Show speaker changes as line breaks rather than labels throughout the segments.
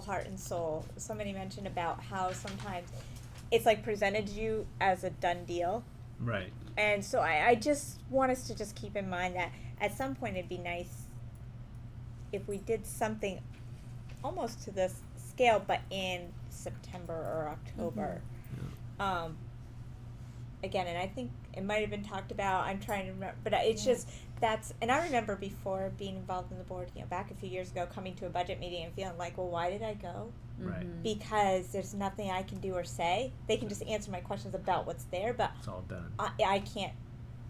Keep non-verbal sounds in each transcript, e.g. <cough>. heart and soul. Somebody mentioned about how sometimes it's like presented to you as a done deal.
Right.
And so I, I just want us to just keep in mind that at some point it'd be nice if we did something almost to this scale, but in September or October.
Mm-hmm.
Um, again, and I think it might have been talked about. I'm trying to remember, but it's
Yeah.
just that's. And I remember before being involved in the board, you know, back a few years ago, coming to a budget meeting and feeling like, well, why did I go?
Right.
Mm-hmm.
Mhm.
Because there's nothing I can do or say. They can just answer my questions about what's there, but
It's all done.
I, I can't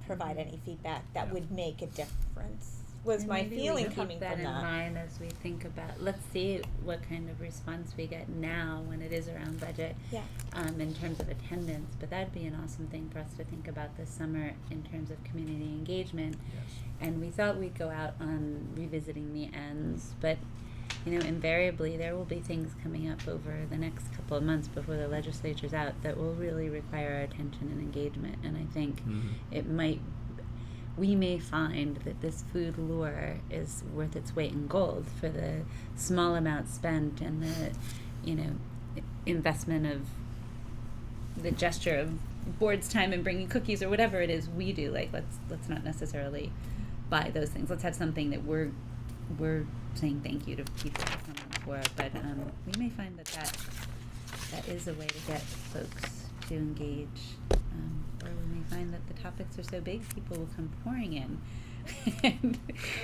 provide any feedback that
Yeah.
would make a difference. Was
And
my
maybe we
feeling
keep
coming
that
from
in
that?
mind as we think about let's see what kind of response we get now when it is around budget
Yeah.
um, in terms of attendance but that'd be an awesome thing for us to think about this summer in terms of community engagement
Yes.
and we thought we'd go out on revisiting the ends but you know invariably there will be things coming up over the next couple of months before the legislature's out that will really require our attention and engagement and i think
Mhm.
it might we may find that this food lure is worth its weight in gold for the small amount spent and the you know i- investment of the gesture of board's time and bringing cookies or whatever it is we do like let's let's not necessarily buy those things let's have something that we're we're saying thank you to people for coming for but um, we may find that that that is a way to get folks to engage. Um, or we may find that the topics are so big, people will come pouring in. <laughs>
Or maybe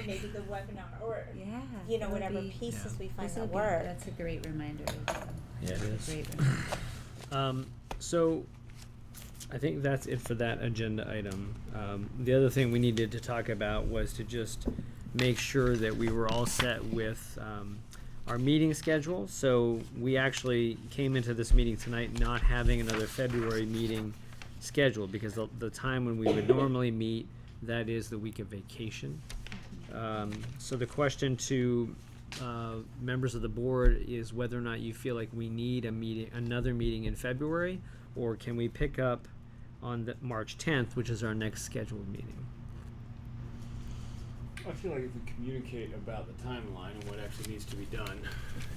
the webinar, or
yeah,
you know,
that would
whatever
be-
pieces
Yeah.
we find
this
that
would be-
work.
That's a great reminder. Rachel.
Yeah, it
That's a
is.
Great reminder.
Um, so I think that's it for that agenda item. Um, the other thing we needed to talk about was to just make sure that we were all set with um, our meeting schedule. So we actually came into this meeting tonight not having another February meeting scheduled because the, the time when we would normally meet, that is the week of vacation. Um, so the question to uh, members of the board is whether or not you feel like we need a meeting, another meeting in February, or can we pick up on the March tenth, which is our next scheduled meeting?
I feel like if we communicate about the timeline and what actually needs to be done,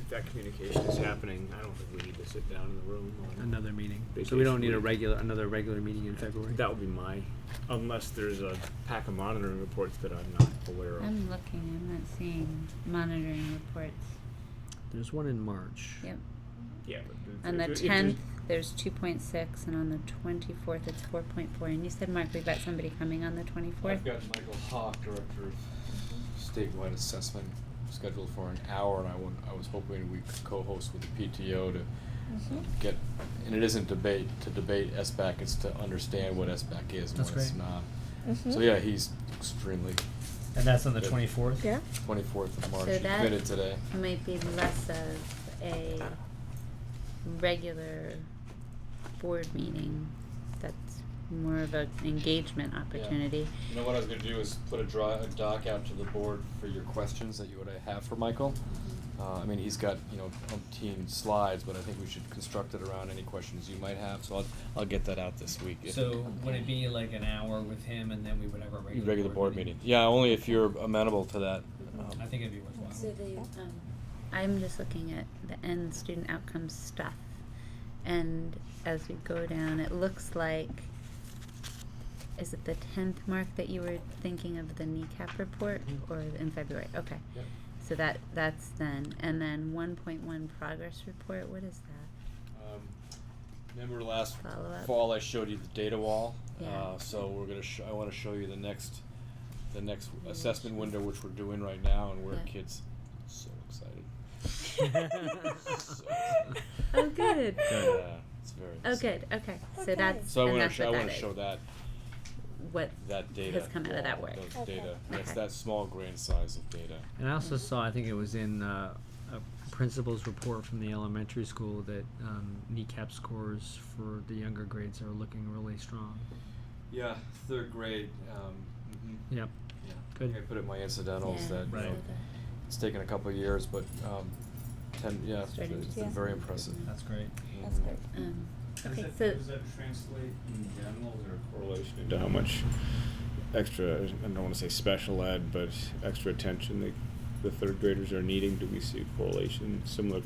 if that communication is happening, I don't think we need to sit down in the room. or-
Another meeting. So we don't need a
Vacation week.
regular, another regular meeting in February.
That would be my, unless there's a pack of monitoring reports that I'm not aware of.
I'm looking, I'm not seeing monitoring reports.
There's one in March.
Yep.
Yeah. but if
On the
there's- if there's-
10th, there's 2.6, and on the 24th, it's 4.4. And you said, Mark, we've got somebody coming on the 24th?
I've got Michael Hawk, Director of Statewide Assessment, scheduled for an hour, and I want, I was hoping we could co-host with the PTO to
Mm-hmm.
Hmm.
get, and it isn't debate, to debate SBAC, it's to understand what SBAC is and
That's
what it's
great.
not.
Mhm.
Hmm.
So, yeah, he's extremely,
And that's on
the
<laughs>
24th?
Yeah.
twenty-fourth of March,
So
he
that-
committed today.
might be less of a regular board meeting that's more of an engagement opportunity.
You know what I was gonna do is put a draw, a doc out to the board for your questions that you would have for Michael. Uh, I mean, he's got, you know, umpteen slides, but I think we should construct it around any questions you might have, so I'll, I'll get that out this week. if-
would it be like an hour with him, and then we would have our
Regular board meeting, yeah, only if you're amenable to that. Um,
think it'd be worthwhile.
So the, um, I'm just looking at the end student outcomes stuff. And as we go down, it looks like, is it the tenth mark that you were thinking of the kneecap report or in February? Okay.
Yep.
So that, that's then, and then one point one progress report, what is that?
um, Remember last
Follow-up.
fall, I showed you the data wall?
Oh, Yeah.
Uh, so we're gonna, sh- I wanna show you the next, the next assessment window, which we're doing right now, and where
Yeah.
kids, so excited.
Oh, good.
Yeah, it's very.
Oh,
exciting.
good, okay, so
Okay.
that's,
So I
and
want to
that's
show, I
what
want
that
to
is,
show that
what,
that data
come out of that work.
Those
Okay.
data. That's
Okay.
that small grain size of data.
And I also saw, I think it was in uh, a principal's report from the elementary school that um, kneecap scores for the younger grades are looking really strong.
Yeah, third grade. Um,
Yep.
yeah.
Good.
I put it in my incidentals
yeah,
that you
Right.
know, it's taken a couple of years, but um, ten. Yeah, it's
Starting
been- it's
to
been
see.
very impressive.
That's great.
That's
Mhm.
great.
um,
Does
okay,
that-
so,
Does that translate in general, is there a correlation into how much extra, I don't wanna say special ed, but extra attention the, the third graders are needing? Do we see a correlation similar